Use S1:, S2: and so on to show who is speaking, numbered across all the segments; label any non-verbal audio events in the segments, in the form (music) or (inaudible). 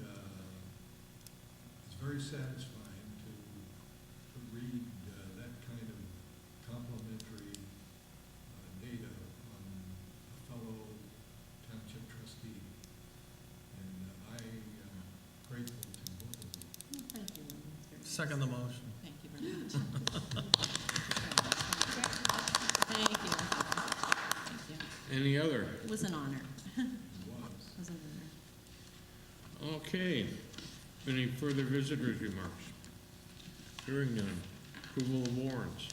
S1: uh, very satisfying to, to read uh, that kind of complimentary uh, data on a fellow township trustee. And uh, I am grateful to both of you.
S2: Thank you. very much.
S3: Second the motion.
S2: Thank you very much. Thank you. Thank you.
S4: Any other?
S2: It was an honor.
S1: It was.
S2: It was an honor.
S4: Okay. Any further visitors' remarks? Hearing none. Approval of warrants.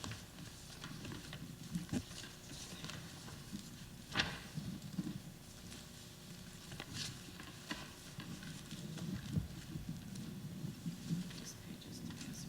S2: These pages to pass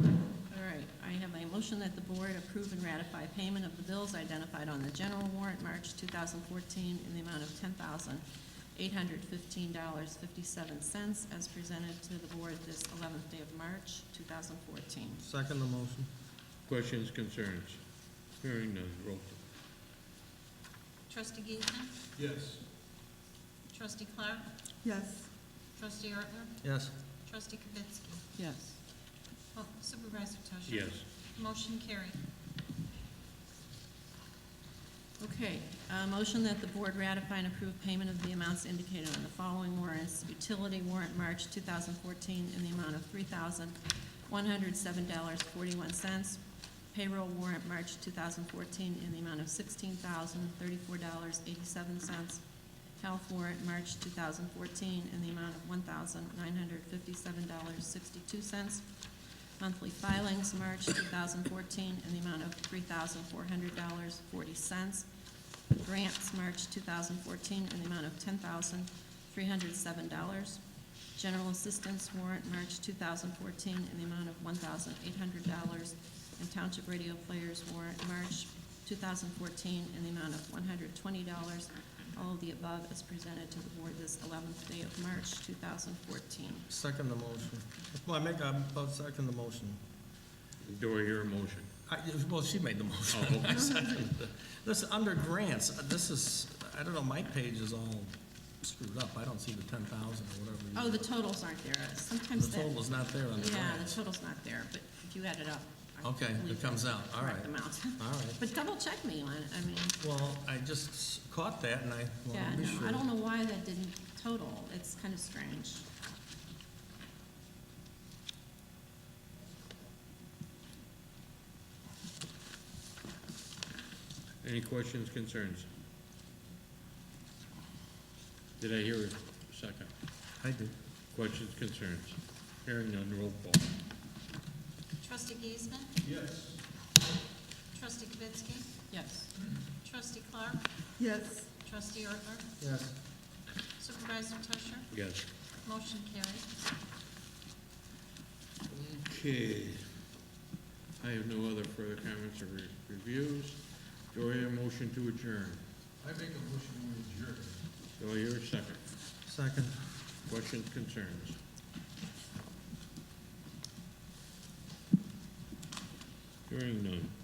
S2: around. All right, I have a motion that the board approve and ratify payment of the bills identified on the general warrant, March 2014, in the amount of $10,815.57 as presented to the board this 11th day of March, 2014.
S3: Second the motion.
S4: Questions, concerns? Hearing none. Roll call.
S5: Trustee Giesman,
S1: Yes.
S5: trustee Clark,
S2: Yes.
S5: trustee Ertler,
S3: Yes.
S5: trustee Kavitsky.
S2: Yes.
S5: Oh, Supervisor Tusher.
S4: Yes.
S5: Motion carried.
S2: Okay, uh, motion that the board ratify and approve payment of the amounts indicated on the following warrants. Utility warrant, March 2014, in the amount of $3,107.41. Payroll warrant, March 2014, in the amount of $16,034.87. Health warrant, March 2014, in the amount of $1,957.62. Monthly filings, March 2014, in the amount of $3,400.40. Grants, March 2014, in the amount of $10,307. General assistance warrant, March 2014, in the amount of $1,800. And township radio players warrant, March 2014, in the amount of $120. All of the above is presented to the board this 11th day of March 2014.
S3: Second the motion. Well, I make, I'm about second the motion.
S4: Do I hear a motion?
S3: I, well, she made the motion. (laughs)
S4: Oh, okay.
S3: I seconded it. This, under grants, uh, this is, I don't know, my page is all screwed up. I don't see the ten thousand or whatever. you-
S2: Oh, the totals aren't there. Uh, Sometimes
S3: The
S2: that.
S3: total is not there on the
S2: Yeah, the
S3: grants.
S2: total's not there, but if you add it up. I
S3: Okay,
S2: believe
S3: it comes out,
S2: it's the
S3: all
S2: correct
S3: right.
S2: amount. (laughs)
S3: All right.
S2: But double check me on it, I mean,
S3: Well, I just caught that and I
S2: yeah,
S3: wanted to be
S2: no,
S3: sure.
S2: I don't know why that didn't total, it's kind of strange.
S4: Any questions, concerns? Did I hear a second?
S3: I did.
S4: Questions, concerns? Hearing none. Roll call.
S5: Trustee Giesman,
S1: Yes.
S5: trustee Kavitsky,
S2: Yes.
S5: trustee Clark,
S2: Yes.
S5: trustee Ertler,
S3: Yes.
S5: supervisor Tusher.
S4: Yes.
S5: Motion carried.
S4: Okay. I have no other further comments or re- reviews. Do I hear a motion to adjourn?
S1: I make a motion to adjourn.
S4: Do I hear a second?
S3: Second.
S4: Questions, concerns? Hearing none.